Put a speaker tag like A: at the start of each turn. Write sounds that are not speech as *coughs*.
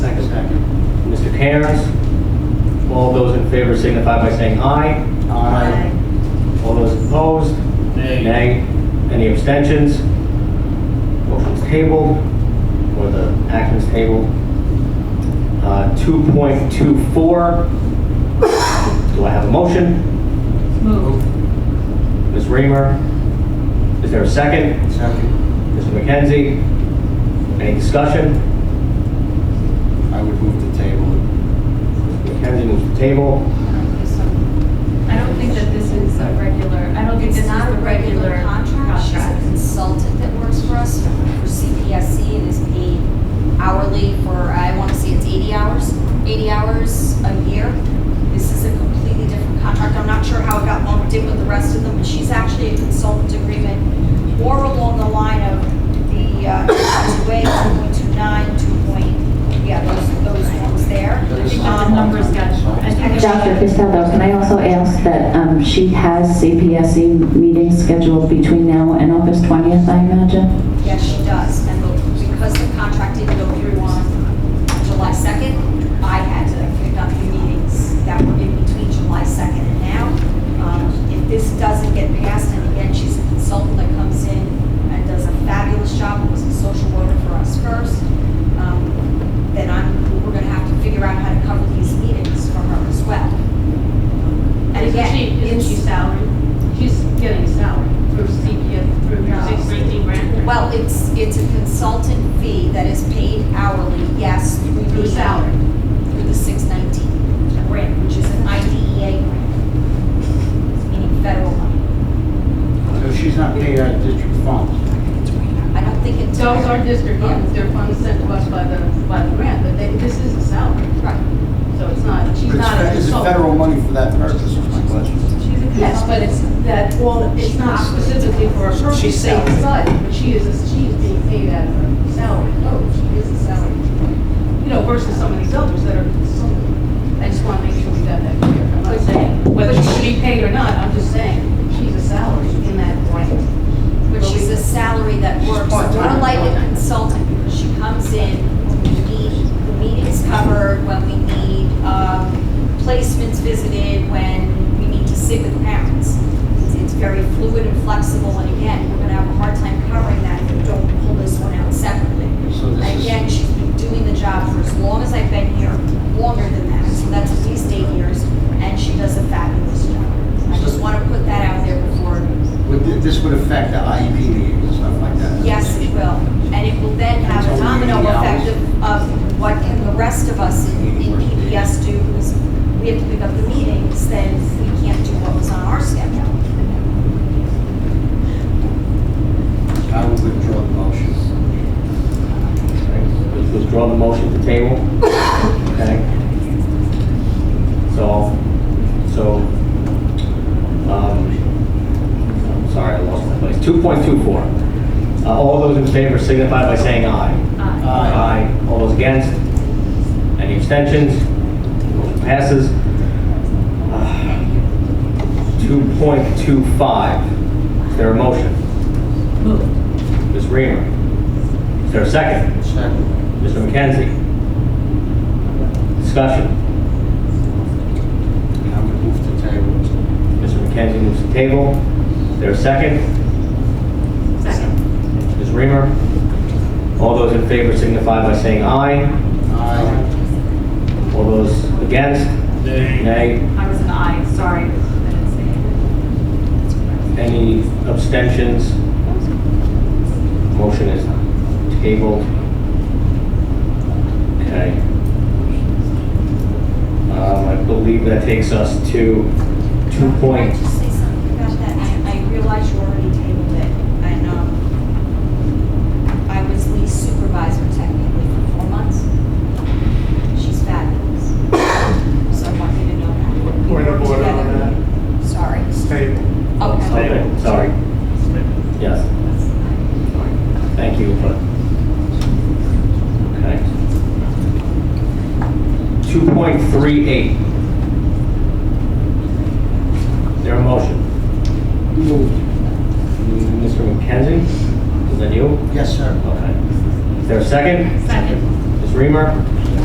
A: parents. All those in favor signify by saying aye. All those opposed?
B: Nay.
A: Any abstentions? Motion's tabled, or the action's tabled. Uh, 2.24, do I have a motion?
C: Move.
A: Ms. Reamer? Is there a second?
B: Second.
A: Mr. McKenzie? Any discussion?
B: I would move the table.
A: McKenzie moves the table.
C: I don't think that this is a regular, I don't think
D: It's
C: this is
D: not a regular contract, she's a consultant that works for us for CPSC and is paid hourly for, I want to say it's 80 hours, 80 hours a year. This is a completely different contract, I'm not sure how it got lumped in with the rest of them, but she's actually a consultant agreement more along the line of the uh, *coughs* 2.28, 2.29, 2. yeah, those, those ones there.
B: That is-
C: I think that the numbers got, I think. it
E: Dr.
C: got-
E: Castaldo, can I also ask that um, she has CPSC meetings E scheduled between now and August 20th, I imagine?
D: Yes, she does, and the- because the contract didn't go through on July 2nd, I had to pick up the meetings that were in between July 2nd and now. Um, If this doesn't get passed, and again, she's a consultant that comes in and does a fabulous job, and was a social worker for us first, um, then I'm, we're gonna have to figure out how to cover these meetings for her as well. And
C: Isn't
D: again,
C: she, isn't she
D: it's-
C: salary? She's getting salary through CPF, through
D: No.
C: 613 grant.
D: Well, it's, it's a consultant fee that is paid hourly, yes, through
C: Through
D: the
C: salary.
D: Through the 619 grant, which is an IDEA E grant,
C: E
D: meaning federal money.
B: So she's not paid out of district funds.
D: I don't think it's.
C: Those are district funds, they're funds sent to us by the, by the grant, but they, this is a salary,
D: Right.
C: so it's not, she's
B: But
C: not a
B: it's- Is it federal
C: consultant.
B: money for that purpose, is my question?
C: Yes, but it's that, well, it's not specifically for a purpose,
B: She's
C: she's
B: salary.
C: but she is, a- she is being paid out of her salary. Oh, she is a salary. You know, versus some of these others that are consultant. I just want to make sure we got that clear. I'm not saying whether she should be paid or not, I'm just saying, she's a salary in that grant.
D: But she's a salary that works, more like a consultant, because she comes in, we need, the meeting's covered, when we need, um, placements visited, when we need to sit with parents. It's- It's very fluid and flexible, and again, we're gonna have a hard time covering that if we don't pull this one out separately.
B: So this is-
D: Again, she's been doing the job for as long as I've been here, longer than that, so that's at least eight years, and she does a fabulous job. I just wanna put that out there before
B: Would, thi- this would affect the IEP meetings and stuff like that?
D: Yes, it will. And it will then have a domino effect of, of what can the rest of us in in PPS do? Because we have to pick up the meetings, then we can't do what was on our schedule.
B: I would withdraw the motion.
A: Let's Withdraw the motion to table. Okay? So, so, um, I'm sorry, I lost my place. 2.24. Uh, All those in favor signify by saying aye. Aye. All those against? Any abstentions? Motion passes. Uh, 2.25. Is there a motion?
C: Move.
A: Ms. Reamer? Is there a second?
B: Second.
A: Mr. McKenzie? Discussion.
B: I would move the table.
A: Mr. McKenzie moves the table. Is there a second?
C: Second.
A: Ms. Reamer? All those in favor signify by saying aye.
B: Aye.
A: All those against? Nay.
C: I was an aye, sorry. I didn't say it.
A: Any abstentions? Motion is tabled. Okay. Um, I believe that takes us to two
D: Can I
A: point,
D: just say something about that? I I realize you already tabled it, and, um, I was lead supervisor technically for four months. She's fabulous. So I want you to know that.
F: Point of order on
D: that. Sorry.
F: It's tabled.
D: Okay.
A: okay, sorry. Yes. Thank you, but, okay. 2.38. There a motion?
B: Moved.
A: Mr. McKenzie, is that you?
B: Yes, sir.
A: Okay. Is there a second?
C: Second.
A: Ms. Reamer?